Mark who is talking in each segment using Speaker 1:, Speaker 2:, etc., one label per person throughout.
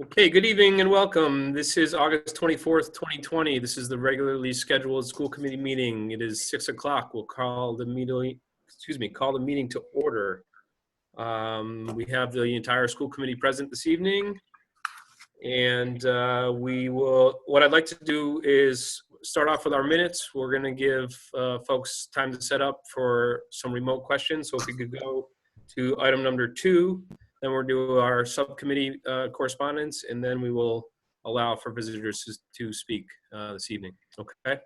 Speaker 1: Okay, good evening and welcome. This is August 24th, 2020. This is the regularly scheduled school committee meeting. It is 6 o'clock. We'll call the meeting, excuse me, call the meeting to order. Um, We have the entire school committee present this evening. And uh, we will, what I'd like to do is start off with our minutes. We're going to give uh, folks time to set up for some remote questions. So if we could go to item number two, then we'll do our subcommittee uh, correspondence, and then we will allow for visitors to- to speak uh, this evening, okay?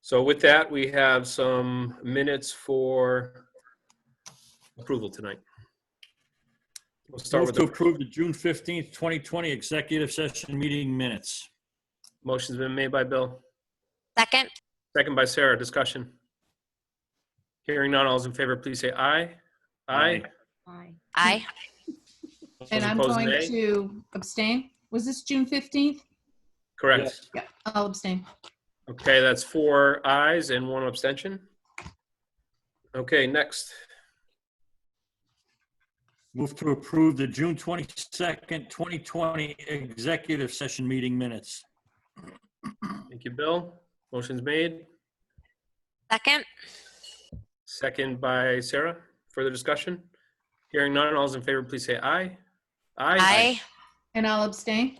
Speaker 1: So with that, we have some minutes for approval tonight. We'll start
Speaker 2: Move
Speaker 1: with,
Speaker 2: to
Speaker 1: the
Speaker 2: approve the June 15th, 2020 executive session meeting minutes.
Speaker 1: motion's been made by Bill,
Speaker 3: Second,
Speaker 1: second by Sarah, discussion. Hearing none, all's in favor, please say aye. Aye.
Speaker 2: Aye.
Speaker 4: Aye.
Speaker 3: aye.
Speaker 4: And
Speaker 1: Those
Speaker 4: I'm
Speaker 1: opposed,
Speaker 4: going
Speaker 1: nay.
Speaker 4: to abstain. Was this June 15th?
Speaker 1: Correct.
Speaker 4: Yeah, I'll abstain.
Speaker 1: Okay, that's four ayes and one abstention. Okay, next.
Speaker 2: Move to approve the June 22nd, 2020 executive session meeting minutes.
Speaker 1: Thank you, Bill. Motion's made.
Speaker 3: Second,
Speaker 1: Second by Sarah. Further discussion? Hearing none, all's in favor, please say aye.
Speaker 3: aye.
Speaker 4: And I'll abstain.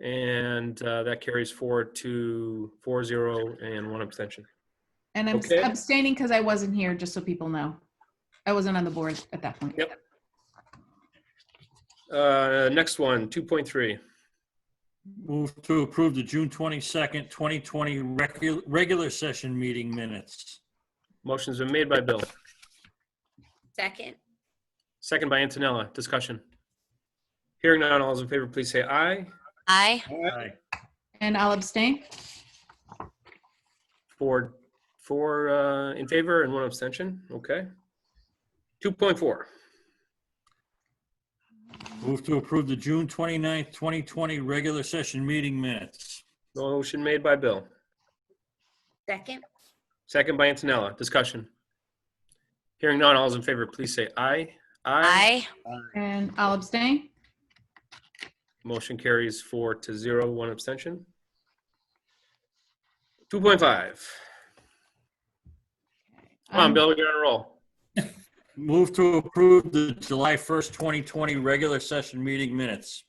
Speaker 1: And uh, that carries four to four zero and one abstention.
Speaker 4: And I'm
Speaker 1: Okay.
Speaker 4: abstaining because I wasn't here, just so people know. I wasn't on the board at that point.
Speaker 1: Yep. Uh, Next one, 2.3.
Speaker 2: Move to approve the June 22nd, 2020 recu- regular session meeting minutes.
Speaker 1: Motion's been made by Bill.
Speaker 3: Second,
Speaker 1: Second by Antonella. Discussion? Hearing none, all's in favor, please say aye.
Speaker 3: aye.
Speaker 2: Aye.
Speaker 4: And I'll abstain.
Speaker 1: Four, four uh, in favor and one abstention. Okay. 2.4.
Speaker 2: Move to approve the June 29th, 2020 regular session meeting minutes.
Speaker 1: Motion made by Bill.
Speaker 3: Second,
Speaker 1: Second by Antonella. Discussion. Hearing none, all those in favor, please say aye.
Speaker 3: aye.
Speaker 4: And I'll abstain.
Speaker 1: Motion carries four to zero, one abstention. 2.5. Come on,
Speaker 4: Um,
Speaker 1: Bill, you're on a roll.
Speaker 2: Move to approve the July 1st, 2020 regular session meeting minutes.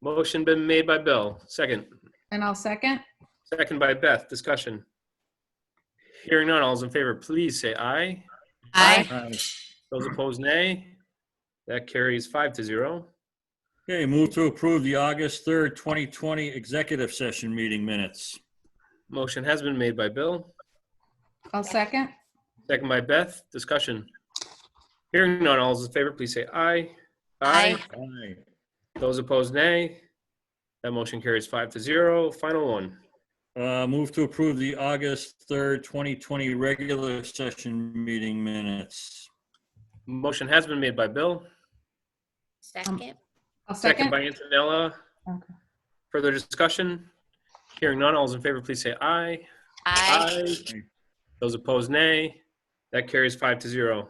Speaker 1: Motion been made by Bill. Second.
Speaker 4: And I'll second.
Speaker 1: Second by Beth. Discussion. Hearing none, all those in favor, please say aye.
Speaker 3: Aye.
Speaker 2: Aye.
Speaker 1: Those opposed, nay. That carries five to zero.
Speaker 2: Okay, move to approve the August 3rd, 2020 executive session meeting minutes.
Speaker 1: Motion has been made by Bill.
Speaker 4: I'll second.
Speaker 1: Second by Beth. Discussion. Hearing none, all those in favor, please say aye.
Speaker 3: Aye.
Speaker 2: Aye.
Speaker 1: Those opposed, nay. That motion carries five to zero. Final one.
Speaker 2: Uh, Move to approve the August 3rd, 2020 regular session meeting minutes.
Speaker 1: Motion has been made by Bill,
Speaker 3: Second,
Speaker 4: I'll
Speaker 1: second
Speaker 4: second.
Speaker 1: by Antonella.
Speaker 4: Okay.
Speaker 1: Further discussion? Hearing none, all those in favor, please say aye.
Speaker 3: aye.
Speaker 1: Those opposed, nay. That carries five to zero.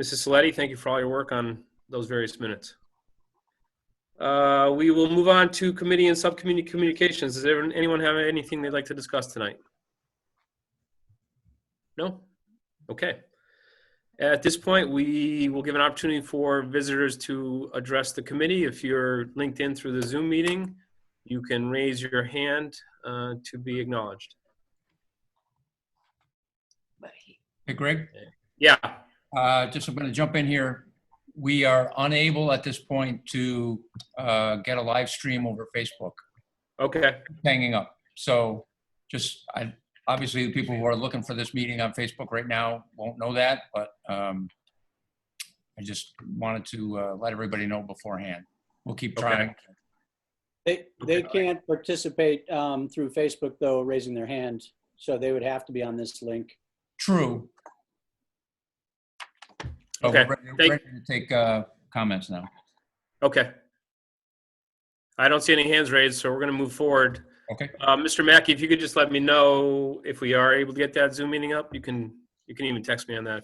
Speaker 1: Mrs. Saletti, thank you for all your work on those various minutes. Uh, We will move on to committee and subcommittee communications. Does everyone- anyone have anything they'd like to discuss tonight? No? Okay. At this point, we will give an opportunity for visitors to address the committee. If you're linked in through the Zoom meeting, you can raise your hand uh, to be acknowledged.
Speaker 5: Hey, Greg,
Speaker 1: Yeah,
Speaker 5: uh, just I'm going to jump in here. We are unable at this point to uh, get a live stream over Facebook
Speaker 1: okay.
Speaker 5: hanging up. So just, I, obviously, the people who are looking for this meeting on Facebook right now won't know that, but um, I just wanted to uh, let everybody know beforehand. We'll keep
Speaker 1: Okay.
Speaker 5: trying.
Speaker 6: They, they can't participate um, through Facebook though, raising their hand, so they would have to be on this link.
Speaker 5: True. So we're
Speaker 1: Okay,
Speaker 5: Ready
Speaker 1: thank-
Speaker 5: ready to take uh, comments now.
Speaker 1: Okay. I don't see any hands raised, so we're going to move forward.
Speaker 5: Okay.
Speaker 1: Uh, Mr. Mackey, if you could just let me know if we are able to get that Zoom meeting up, you can, you can even text me on that